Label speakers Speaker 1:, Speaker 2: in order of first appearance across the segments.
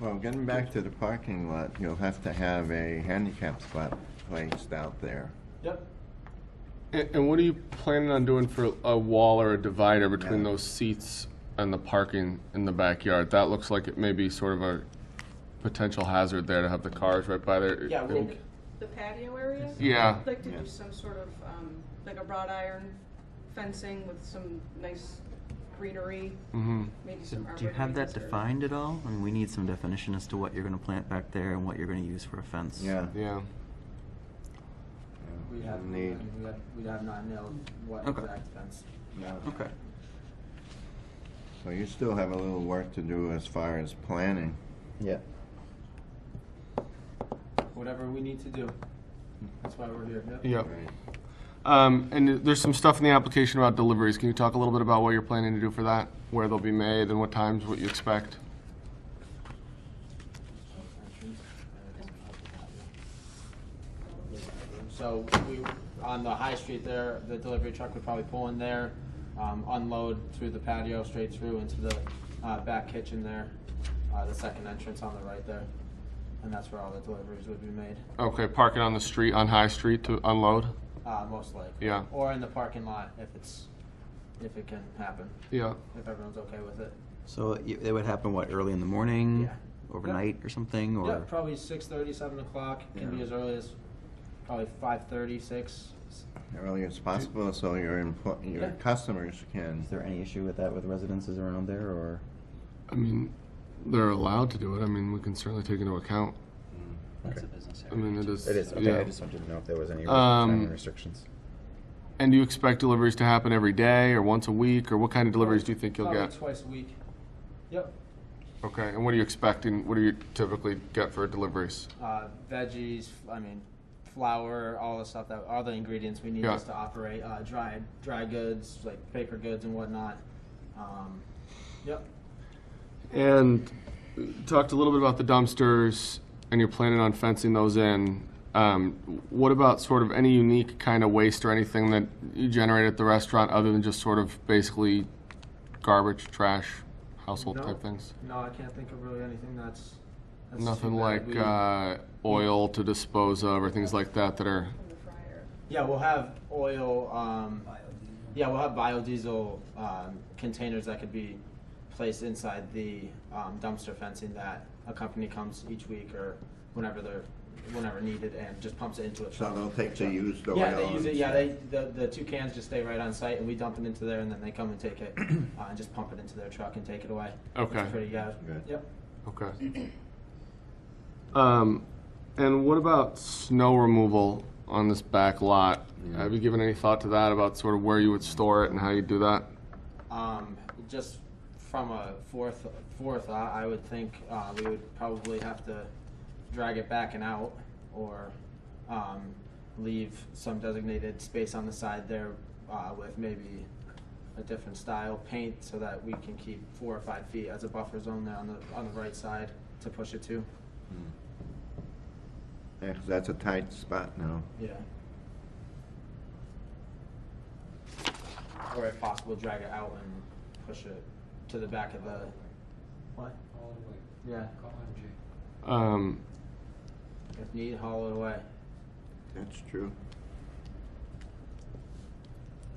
Speaker 1: Well, getting back to the parking lot, you'll have to have a handicap spot placed out there.
Speaker 2: Yep.
Speaker 3: And, and what are you planning on doing for a wall or a divider between
Speaker 1: Yeah.
Speaker 3: those seats and the parking in the backyard? That looks like it may be sort of a potential hazard there to have the cars right by there.
Speaker 2: Yeah, we'll-
Speaker 3: And-
Speaker 4: The patio area?
Speaker 3: Yeah.
Speaker 4: I'd like to
Speaker 1: Yeah.
Speaker 4: do some sort of, um, like a wrought iron fencing with some nice greenery,
Speaker 3: Mhm.
Speaker 4: maybe
Speaker 5: So
Speaker 4: some
Speaker 5: do you have that
Speaker 4: arborvitae's or-
Speaker 5: defined at all? And we need some definition as to what you're gonna plant back there and what you're gonna use for a fence.
Speaker 1: Yeah.
Speaker 3: Yeah.
Speaker 2: We have, we
Speaker 1: Need,
Speaker 2: have, we have not know what
Speaker 5: Okay.
Speaker 2: exact fence.
Speaker 1: yeah.
Speaker 5: Okay.
Speaker 1: So you still have a little work to do as far as planning.
Speaker 6: Yeah.
Speaker 2: Whatever we need to do. That's why we're here. Yep.
Speaker 3: Yep.
Speaker 1: Right.
Speaker 3: Um, and there's some stuff in the application about deliveries. Can you talk a little bit about what you're planning to do for that? Where they'll be made and what times, what you expect?
Speaker 2: So we, on the high street there, the delivery truck would probably pull in there, um, unload through the patio, straight through into the, uh, back kitchen there, uh, the second entrance on the right there. And that's where all the deliveries would be made,
Speaker 3: Okay, parking on the street, on High Street to unload?
Speaker 2: uh, most likely.
Speaker 3: Yeah.
Speaker 2: Or in the parking lot if it's, if it can happen,
Speaker 3: Yeah.
Speaker 2: if everyone's okay with it.
Speaker 5: So it it would happen, what, early in the morning?
Speaker 2: Yeah.
Speaker 5: Overnight or something, or?
Speaker 2: Yeah, probably six thirty, seven o'clock, can be
Speaker 1: Yeah.
Speaker 2: as early as probably five thirty, six.
Speaker 1: Early as possible so your, empl- your
Speaker 2: Yeah.
Speaker 1: customers can.
Speaker 5: Is there any issue with that with residences around there, or?
Speaker 3: I mean, they're allowed to do it. I mean, we can certainly take into account.
Speaker 5: That's a
Speaker 6: business
Speaker 3: I mean, it is.
Speaker 6: It is, okay,
Speaker 3: yeah.
Speaker 6: I just wanted to know if there was any
Speaker 3: Um,
Speaker 6: restrictions.
Speaker 3: And do you expect deliveries to happen every day or once a week, or what kind of deliveries do you think you'll
Speaker 2: Probably
Speaker 3: get?
Speaker 2: Twice a week. Yep,
Speaker 3: Okay, and what are you expecting, what do you typically get for deliveries?
Speaker 2: uh, veggies, f- I mean, flour, all the stuff that, all the ingredients we need
Speaker 3: Yeah.
Speaker 2: just to operate, uh, dry, dry goods, like paper goods and whatnot. Um, yep,
Speaker 3: And uh, talked a little bit about the dumpsters, and you're planning on fencing those in. Um, what about sort of any unique kind of waste or anything that you generate at the restaurant other than just sort of basically garbage, trash, household
Speaker 2: No.
Speaker 3: type things?
Speaker 2: no, I can't think of really anything that's. that's too
Speaker 3: Nothing
Speaker 2: bad.
Speaker 3: like
Speaker 2: We-
Speaker 3: uh, oil to dispose of or things like that that are.
Speaker 4: From the fryer.
Speaker 2: Yeah, we'll have oil, um, yeah, we'll have biodiesel, um, containers that could be placed inside the, um, dumpster fencing that a company comes each week or whenever they're, whenever needed and just pumps it into a
Speaker 1: So
Speaker 2: truck.
Speaker 1: they'll take the used oil.
Speaker 2: Yeah, they use
Speaker 1: and
Speaker 2: it, yeah,
Speaker 1: stuff.
Speaker 2: they, the, the two cans just stay right on site and we dump it into there and then they come and take it, uh, and just pump it into their truck and take it away.
Speaker 3: Okay.
Speaker 2: It's pretty, yeah,
Speaker 1: Good.
Speaker 2: yep.
Speaker 3: Okay. Um, and what about snow removal on this back lot? Have you given any thought to that about sort of where you would store it and how you do that?
Speaker 2: Um, just from a fourth, forethought, I would think, uh, we would probably have to drag it back and out, or, um, leave some designated space on the side there, uh, with maybe a different style paint, so that we can keep four or five feet as a buffer zone there on the, on the right side to push it to,
Speaker 1: Yeah, 'cause that's a tight spot now.
Speaker 2: yeah. Or if possible, drag it out and push it to the back of the, what?
Speaker 7: all the way.
Speaker 2: Yeah.
Speaker 7: Call MJ.
Speaker 3: Um,
Speaker 2: If need, hollow it away.
Speaker 1: That's true.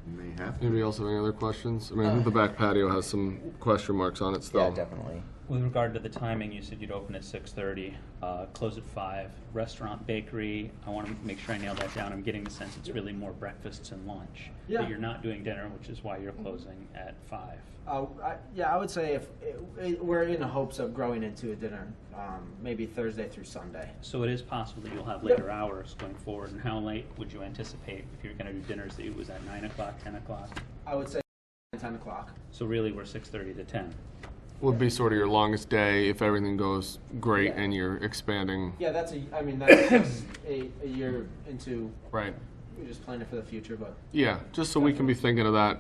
Speaker 1: You may have to.
Speaker 3: anybody else have any other questions? I mean, I think the back patio has some question marks on it still.
Speaker 5: Uh. Yeah, definitely.
Speaker 8: With regard to the timing, you said you'd open at six thirty, uh, close at five. Restaurant, bakery, I want to make sure I nail that down. I'm getting the sense it's really more breakfasts and lunch.
Speaker 2: Yeah.
Speaker 8: That you're not doing dinner, which is why you're closing at five.
Speaker 2: Uh, I, yeah, I would say if it, we're in the hopes of growing into a dinner, um, maybe Thursday through Sunday.
Speaker 8: So it is possible that you'll have later hours going forward. And how late would you anticipate if you're going to do dinners? That it was at nine o'clock, ten o'clock?
Speaker 2: I would say ten o'clock.
Speaker 8: So really, we're six thirty to ten.
Speaker 3: Would be sort of your longest day if everything goes great
Speaker 2: Yeah.
Speaker 3: and you're expanding.
Speaker 2: Yeah, that's a. I mean, that's a, a year into.
Speaker 3: Right.
Speaker 2: We're just planning for the future, but
Speaker 3: Yeah, just so we can be thinking of that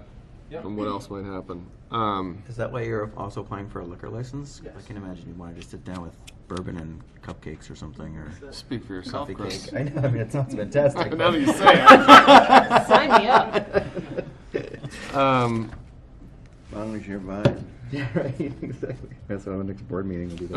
Speaker 2: Yep.
Speaker 3: and what else might happen. Um,
Speaker 5: Is that why you're also applying for a liquor license? I
Speaker 2: Yes.
Speaker 5: can imagine you wanted to sit down with bourbon and cupcakes or something, or
Speaker 3: speak for yourself,
Speaker 5: coffee
Speaker 3: Chris.
Speaker 5: cake. I know, I mean, it sounds fantastic.
Speaker 3: Now that
Speaker 5: but-
Speaker 3: you say
Speaker 4: Sign me up.
Speaker 3: it. Um,
Speaker 1: As long as you're buying.
Speaker 5: Yeah, right, exactly. That's what our next board meeting will be.